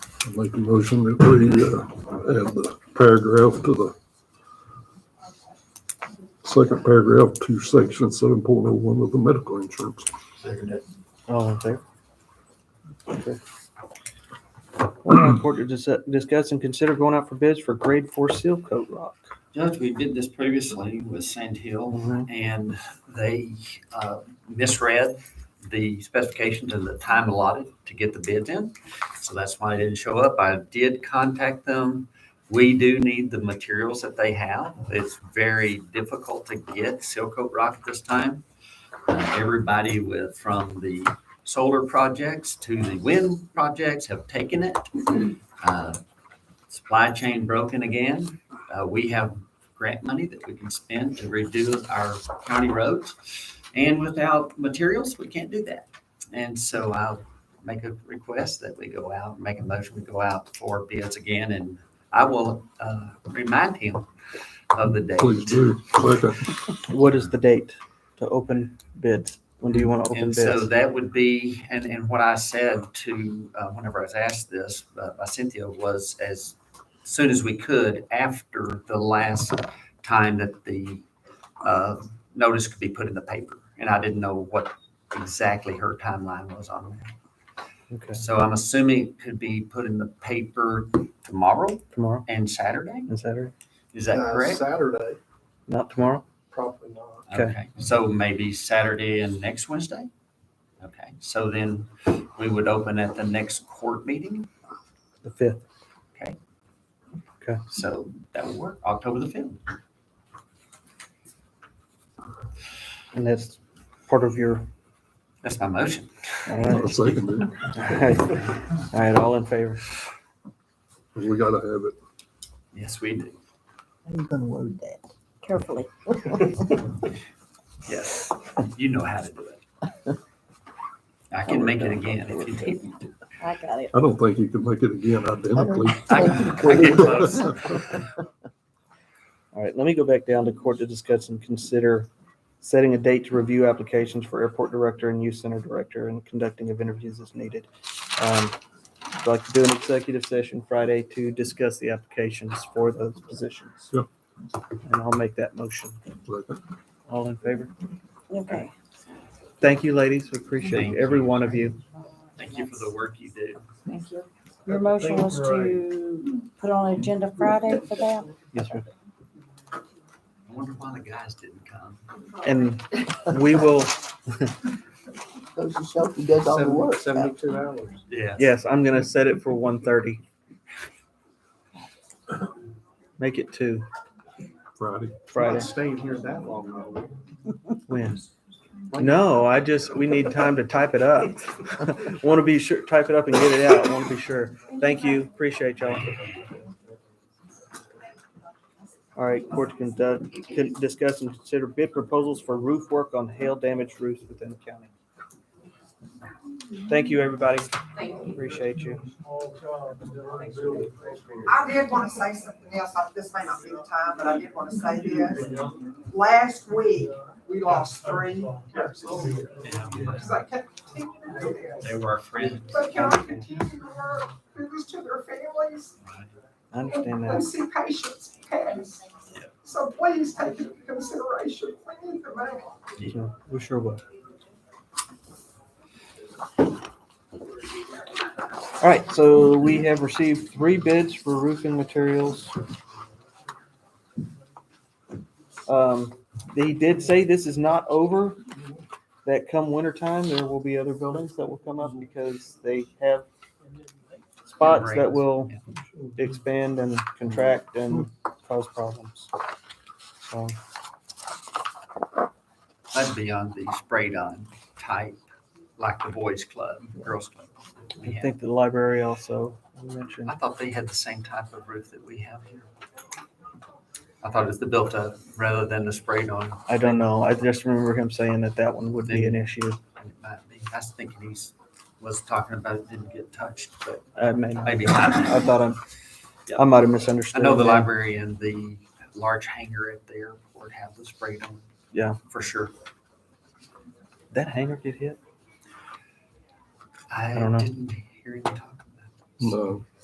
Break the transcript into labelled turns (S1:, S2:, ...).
S1: I'll Make a motion that we uh, add the paragraph to the second paragraph to section seven point oh one of the medical insurance.
S2: Second it.
S3: All in favor? Oh, Okay. Uh, Court to dis- discuss and consider going out for bids for grade four seal coat rock.
S2: Judge, we did this previously with Sand Hill and they uh, misread the specifications and the time allotted to get the bids in. So that's why I didn't show up. I did contact them. We do need the materials that they have. It's very difficult to get Silcoat Rock at this time. Uh, Everybody with, from the solar projects to the wind projects have taken it. Uh, Supply chain broken again. Uh, We have grant money that we can spend to redo our county roads. And without materials, we can't do that. And so I'll make a request that we go out, make a motion, we go out for bids again, and I will uh, remind him of the date.
S1: Please do. Second.
S3: What is the date to open bids? When do you want to open
S2: And
S3: bids?
S2: so that would be, and, and what I said to, uh, whenever I was asked this, uh, by Cynthia was as soon as we could after the last time that the, uh, notice could be put in the paper. And I didn't know what exactly her timeline was on
S3: Okay,
S2: that. So I'm assuming it could be put in the paper tomorrow
S3: tomorrow
S2: and Saturday?
S3: and Saturday?
S2: Is that
S4: Uh,
S2: correct?
S4: Saturday,
S3: Not tomorrow?
S4: probably not.
S3: Okay.
S2: So maybe Saturday and next Wednesday? Okay, so then we would open at the next court meeting,
S3: The fifth.
S2: so that would work, October the fifth.
S3: And that's part of your,
S2: That's my motion.
S3: all
S1: I'll
S3: right.
S1: second it.
S3: All right. All right, all in favor?
S1: 'cause We gotta have it.
S2: Yes, we do.
S5: How you gonna word that? Carefully.
S2: Yes, you know how to do it. I can make it again if you need me to.
S5: I got it.
S1: I don't think you can make it again identically.
S2: I I get close.
S3: All right, let me go back down to court to discuss and consider setting a date to review applications for airport director and youth center director and conducting of interviews as needed. Um, I'd like to do an executive session Friday to discuss the applications for those positions.
S1: Yep.
S3: And I'll make that motion.
S1: Second.
S3: All in favor?
S5: Okay.
S3: Thank you, ladies. We appreciate
S2: Thank
S3: every one of you.
S2: Thank you for the work you do.
S5: Thank you. Your motion was to put on agenda Friday for that?
S3: Yes, ma'am.
S2: I wonder why the guys didn't come.
S3: And we will,
S6: goes to show he does all the
S4: Seven-
S6: work.
S4: Seventy-two hours.
S2: Yeah.
S3: yes, I'm gonna set it for one thirty. Make it two
S1: Friday.
S4: Not
S3: Friday.
S4: Staying here that long, though.
S3: When? No, I just, we need time to type it up. Want to be sure, type it up and get it out. Want to be sure. Thank you. Appreciate y'all. All right, court to conduct, can discuss and consider bid proposals for roof work on hail damaged roofs within the county. Thank you, everybody. Appreciate you.
S7: I did want to say something else, I- this may not be the time, but I did want to say this. Last week, we lost three nurses. Because I kept continuing to do
S2: They
S7: this.
S2: were our friends.
S7: But can I continue to work, do this to their families?
S3: I understand
S7: And
S3: that.
S7: see patients pass. So please take it into consideration, we need the money.
S3: So, We sure will. All right, so we have received three bids for roofing materials. Um, They did say this is not over, that come wintertime, there will be other buildings that will come up because they have spots that will expand and contract and cause problems. So,
S2: That's beyond the sprayed on type, like the boys club, girls club. We
S3: I
S2: have.
S3: think the library also mentioned.
S2: I thought they had the same type of roof that we have here. I thought it's the built up rather than the sprayed on.
S3: I don't know. I just remember him saying that that one would be an issue.
S2: It might be. I was thinking he's, was talking about it didn't get touched, but
S3: I mean, I
S2: maybe not.
S3: thought I'm, I might have misunderstood.
S2: I know the
S3: him.
S2: library and the large hangar at the airport have the sprayed on.
S3: Yeah.
S2: For sure.
S3: That hanger get hit?
S2: I
S3: don't know.
S2: didn't hear him talk about it.
S1: No.